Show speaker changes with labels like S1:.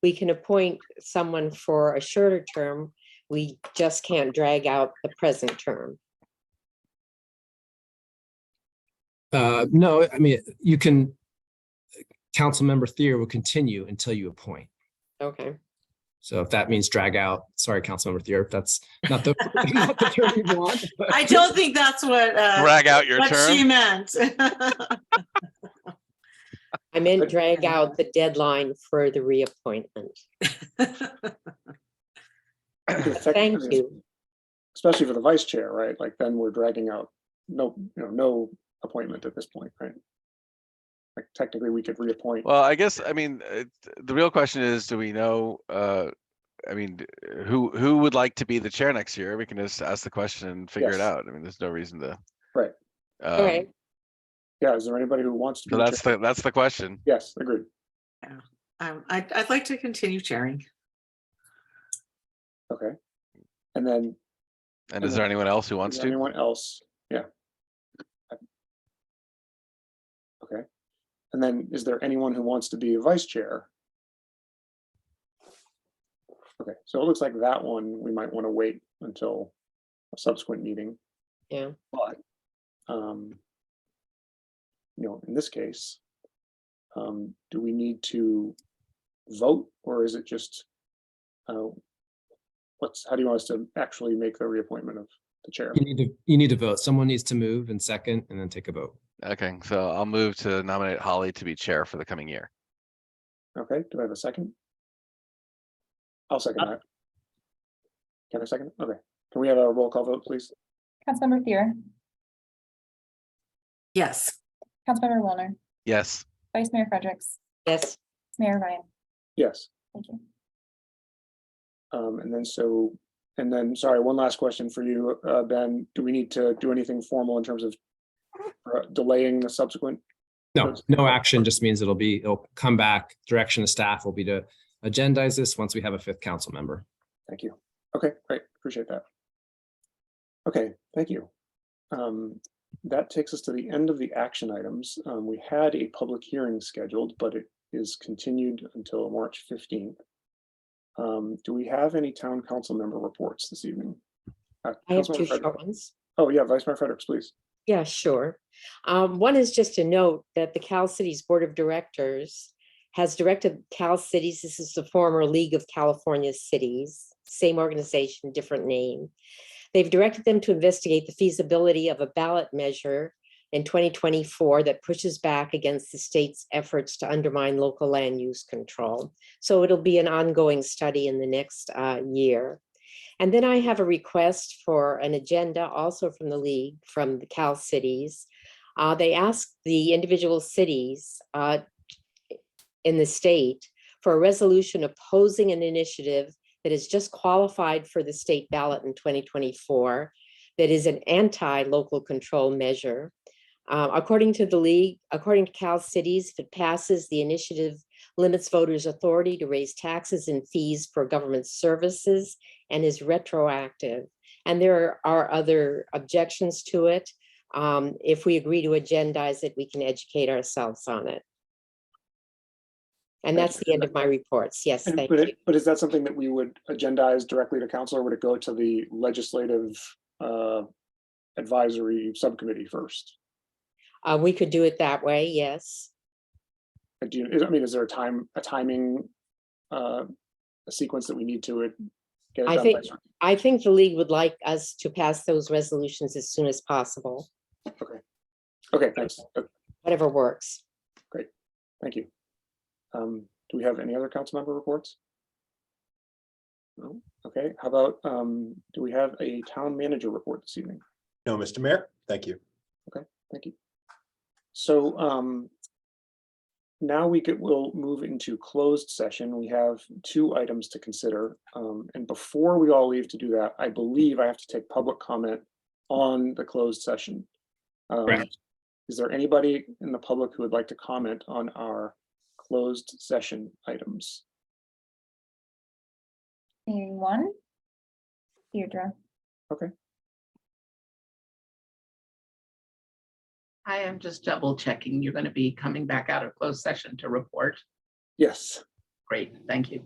S1: we can appoint someone for a shorter term. We just can't drag out the present term.
S2: Uh, no, I mean, you can, Councilmember Thier will continue until you appoint.
S1: Okay.
S2: So if that means drag out, sorry, Councilmember Thier, if that's not the, not the term you want. but-
S3: I don't think that's what, uh,
S4: Drag out your
S3: what she
S4: term.
S3: meant.
S1: I meant drag out the deadline for the reappointment. Thank
S5: Technically,
S1: you.
S5: Especially for the vice chair, right? Like then we're dragging out, no, you know, no appointment at this point, right? Like technically, we could reappoint.
S4: Well, I guess, I mean, uh, the real question is, do we know, uh, I mean, d- who, who would like to be the chair next year? We can just ask the question and figure it
S5: Yes.
S4: out. I mean, there's no reason to.
S5: Right.
S1: All
S4: um,
S1: right.
S5: Yeah, is there anybody who wants to? be
S4: So
S5: the
S4: that's
S5: chair?
S4: the, that's the question.
S5: Yes, agreed.
S3: Um, I, I'd like to continue chairing.
S5: Okay. And then
S4: And is
S5: Mhm.
S4: there anyone else who
S5: Is
S4: wants
S5: there
S4: to?
S5: Anyone else? Yeah. Okay. And then is there anyone who wants to be a vice chair? Okay, so it looks like that one, we might want to wait until a subsequent meeting.
S1: Yeah.
S5: But, um, you know, in this case, um, do we need to vote or is it just, uh, what's, how do you want us to actually make the reappointment of the chair?
S2: You need to, you need to vote. Someone needs to move and second and then take a vote.
S4: Okay, so I'll move to nominate Holly to be chair for the coming year.
S5: Okay, do I have a second? I'll second that. Can I second? it? Okay, can we have a roll call vote, please?
S6: Councilmember Thier,
S3: Yes.
S6: Councilmember Wilner,
S4: Yes,
S6: Vice Mayor Fredericks,
S1: Yes,
S6: Mayor Ryan.
S5: Yes,
S6: Thank you.
S5: um, and then so, and then, sorry, one last question for you, uh, Ben. Do we need to do anything formal in terms of uh, delaying the subsequent?
S2: No, no action just means it'll be, it'll come back. Direction of staff will be to agendize this once we have a fifth council member.
S5: Thank you. Okay, great, appreciate that. Okay, thank you. Um, that takes us to the end of the action items. Um, we had a public hearing scheduled, but it is continued until March fifteenth. Um, do we have any town council member reports this evening? Uh,
S1: I have
S5: Councilmember
S1: two
S5: Frederick-
S1: short ones.
S5: Oh, yeah, Vice Mayor Fredericks, please.
S1: Yeah, sure. Um, one is just a note that the Cal Cities Board of Directors has directed Cal Cities, this is the former League of California Cities, same organization, different name. They've directed them to investigate the feasibility of a ballot measure in 2024 that pushes back against the state's efforts to undermine local land use control. So it'll be an ongoing study in the next uh, year. And then I have a request for an agenda also from the league, from the Cal Cities. Uh, they asked the individual cities uh, in the state for a resolution opposing an initiative that is just qualified for the state ballot in 2024 that is an anti-local control measure. Uh, according to the league, according to Cal Cities, if it passes, the initiative limits voters' authority to raise taxes and fees for government services and is retroactive. And there are other objections to it. Um, If we agree to agendize it, we can educate ourselves on it.
S5: Thank
S1: And that's
S5: you.
S1: the end of my reports. Yes,
S5: And-
S1: thank
S5: But,
S1: you.
S5: it- but is that something that we would agendize directly to council or would it go to the legislative uh, advisory subcommittee first?
S1: Uh, We could do it that way, yes.
S5: Uh, Do you, is- I mean, is there a time, a timing, uh, a sequence that we need to it? get it
S1: I
S5: done by
S1: think-
S5: certain-
S1: I think the league would like us to pass those resolutions as soon as possible,
S5: Okay, thanks. Uh,
S1: whatever works.
S5: Thank you. Um, do we have any other council member reports? No? Okay, how about, um, do we have a town manager report this evening?
S7: No, Mr. Mayor, thank you.
S5: Thank you. So um. Now we could, we'll move into closed session. We have two items to consider. Um, and before we all leave to do that, I believe I have to take public comment on the closed session. Um,
S2: Correct.
S5: Is there anybody in the public who would like to comment on our closed session items?
S6: Seeing one. Deirdre,
S8: I am just double checking. You're going to be coming back out of closed session to report.
S5: Yes.
S8: Great, thank you.